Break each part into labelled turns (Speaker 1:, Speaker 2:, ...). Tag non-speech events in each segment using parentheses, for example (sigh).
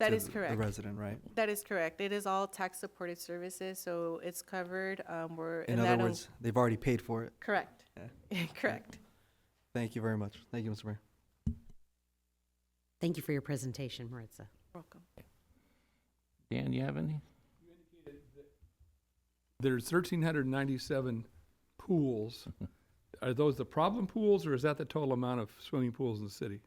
Speaker 1: That
Speaker 2: to
Speaker 1: is
Speaker 2: the-
Speaker 1: correct.
Speaker 2: The resident, right?
Speaker 1: That is correct. It is all tax-supported services, so it's covered. Um, we're
Speaker 2: In
Speaker 1: and that
Speaker 2: other
Speaker 1: un-
Speaker 2: words, they've already paid for it.
Speaker 1: (laughs) correct.
Speaker 2: Yeah.
Speaker 1: (laughs) correct.
Speaker 2: Thank you very much. Thank you, Mr. Mayor.
Speaker 3: Thank you for your presentation, Maritza.
Speaker 1: Welcome.
Speaker 4: Dan, you have any?
Speaker 5: There's thirteen hundred ninety-seven
Speaker 4: (laughs)
Speaker 5: pools. Are those the problem pools, or is that the total amount of swimming pools in the city?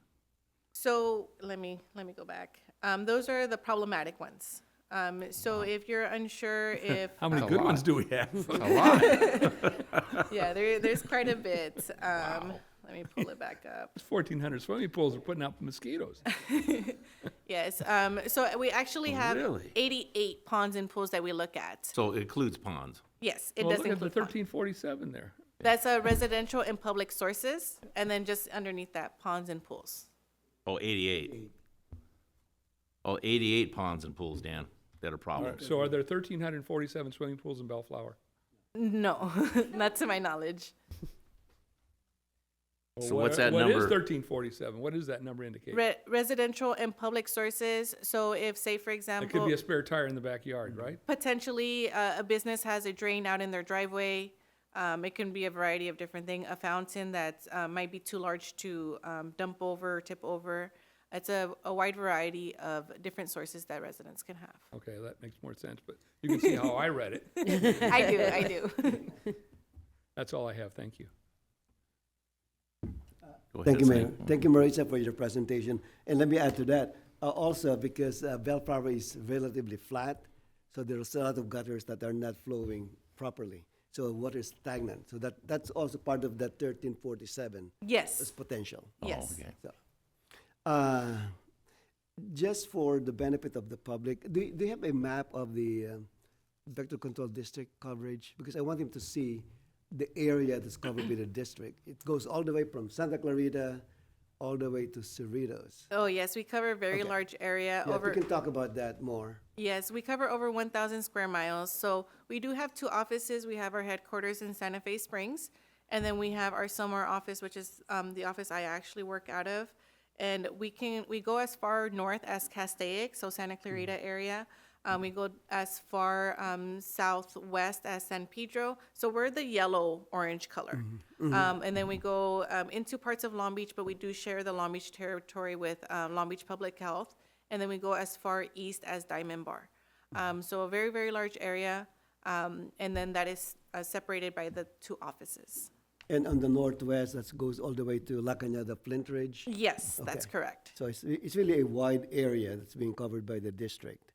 Speaker 1: So let me let me go back. Um, those are the problematic ones. Um, so if you're unsure if
Speaker 5: How many
Speaker 4: That's a
Speaker 5: good ones
Speaker 4: lot.
Speaker 5: do we have? (laughs)
Speaker 4: A lot.
Speaker 1: (laughs) yeah, there, there's quite a bit. Um, Let me pull it back up.
Speaker 5: Fourteen hundred swimming pools are putting out mosquitoes.
Speaker 1: Yes. Um, so we actually have
Speaker 4: Really?
Speaker 1: 88 ponds and pools that we look at.
Speaker 4: So it includes ponds.
Speaker 1: Yes, it
Speaker 5: Well,
Speaker 1: does
Speaker 5: look at the
Speaker 1: include ponds.
Speaker 5: thirteen forty-seven there.
Speaker 1: That's uh, residential and public sources, and then just underneath that, ponds and pools.
Speaker 4: Oh, 88. Oh, 88 ponds and pools, Dan, that are problems.
Speaker 5: So are there thirteen hundred forty-seven swimming pools in Bellflower?
Speaker 1: No, (laughs) not to my knowledge.
Speaker 5: Well,
Speaker 4: So
Speaker 5: what
Speaker 4: what's
Speaker 5: are-
Speaker 4: that
Speaker 5: What
Speaker 4: number?
Speaker 5: is thirteen forty-seven? What does that number indicate?
Speaker 1: Re- residential and public sources. So if, say, for
Speaker 5: It could
Speaker 1: example,
Speaker 5: be a spare tire in the backyard, right?
Speaker 1: potentially uh, a business has a drain out in their driveway. Um, it can be a variety of different things. A fountain that uh, might be too large to um, dump over, tip over. It's a, a wide variety of different sources that residents can
Speaker 5: (laughs)
Speaker 4: Mm-hmm.
Speaker 1: have.
Speaker 5: Okay, that makes more sense, but you can see how I read it.
Speaker 1: (laughs) I do, I do.
Speaker 5: That's all I have. Thank you.
Speaker 4: Go
Speaker 6: Thank you,
Speaker 4: ahead, Sam.
Speaker 6: Mayor. Thank you, Marissa, for your presentation. And let me add to that, uh, also because uh, Bellflower is relatively flat, so there's a lot of gutters that are not flowing properly. So water is stagnant. So that, that's also part of that 1347
Speaker 1: Yes,
Speaker 6: as potential.
Speaker 4: Oh,
Speaker 1: yes.
Speaker 4: okay.
Speaker 6: So, uh, just for the benefit of the public, do, do you have a map of the um vector control district coverage? Because I want them to see the area that's covered by the district. It goes all the way from Santa Clarita all the way to Cerritos.
Speaker 1: Oh, yes, we cover a very
Speaker 6: Okay.
Speaker 1: large area
Speaker 6: Yeah,
Speaker 1: over.
Speaker 6: we can talk about that more.
Speaker 1: Yes, we cover over 1,000 square miles. So we do have two offices. We have our headquarters in Santa Fe Springs, and then we have our Somar office, which is um, the office I actually work out of. And we can we go as far north as Castaic, so Santa Clarita area. Um, we go as far um, southwest as San Pedro. So we're the yellow orange color. Um, and then we go um, into parts of Long Beach, but we do share the Long Beach territory with uh, Long Beach Public Health and then we go as far east as Diamond Bar. Um, so a very, very large area, um, and then that is uh, separated by the two offices.
Speaker 6: And on the northwest, that goes all the way to La Cañada Flint Ridge.
Speaker 1: Yes, that's
Speaker 6: Okay.
Speaker 1: correct.
Speaker 6: So it's, it's really a wide area that's being covered by the district.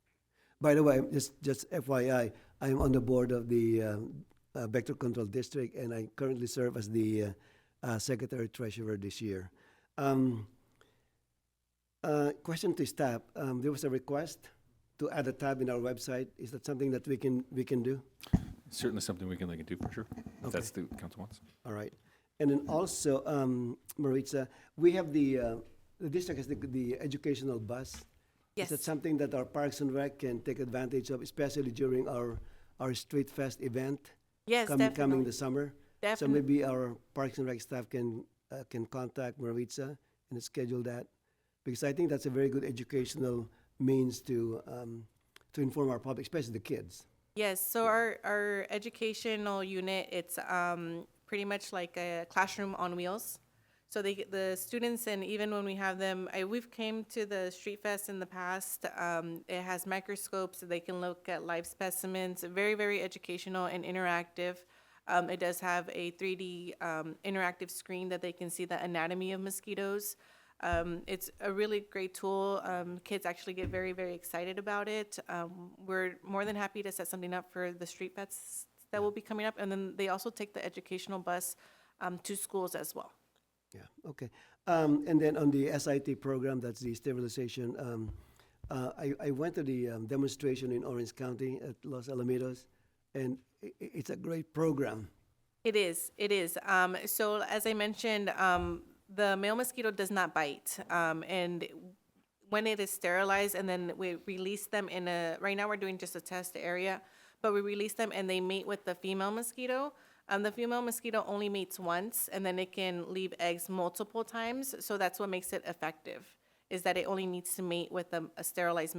Speaker 6: By the way, just, just FYI, I'm on the board of the um, uh, Vector Control District, and I currently serve as the uh, uh, Secretary Treasurer this year. Um, uh, Question to staff, um, there was a request to add a tab in our website. Is that something that we can, we can do?
Speaker 7: certainly something we can look into for sure. If that's the council wants.
Speaker 6: All right. And then also, um, Maritza, we have the, uh, the district has the, the educational bus.
Speaker 1: Yes.
Speaker 6: Is that something that our Parks and Rec can take advantage of, especially during our, our Street Fest event?
Speaker 1: Yes,
Speaker 6: coming, coming
Speaker 1: definitely.
Speaker 6: this summer? So
Speaker 1: Definite-
Speaker 6: maybe our Parks and Rec staff can, uh, can contact Maritza and schedule that? Because I think that's a very good educational means to, um, to inform our public, especially the kids.
Speaker 1: Yes, so our, our educational unit, it's um, pretty much like a classroom on wheels. So they, get- the students, and even when we have them, I, we've came to the Street Fest in the past. Um, it has microscopes, so they can look at live specimens, very, very educational and interactive. Um, it does have a 3D um, interactive screen that they can see the anatomy of mosquitoes. Um, it's a really great tool. Um, kids actually get very, very excited about it. Um, we're more than happy to set something up for the street pets that will be coming up. And then they also take the educational bus um, to schools as well.
Speaker 6: Yeah, okay. Um, and then on the SIT program, that's the sterilization, um, uh, I, I went to the um, demonstration in Orange County at Los Alamitos, and i i- it's a great program.
Speaker 1: It is. It is. Um, so, as I mentioned, um, the male mosquito does not bite, um, and when it is sterilized, and then we release them in a. Right now, we're doing just a test area, but we release them, and they mate with the female mosquito. Um, the female mosquito only mates once, and then it can leave eggs multiple times. So that's what makes it effective, is that it only needs to mate with a, a sterilized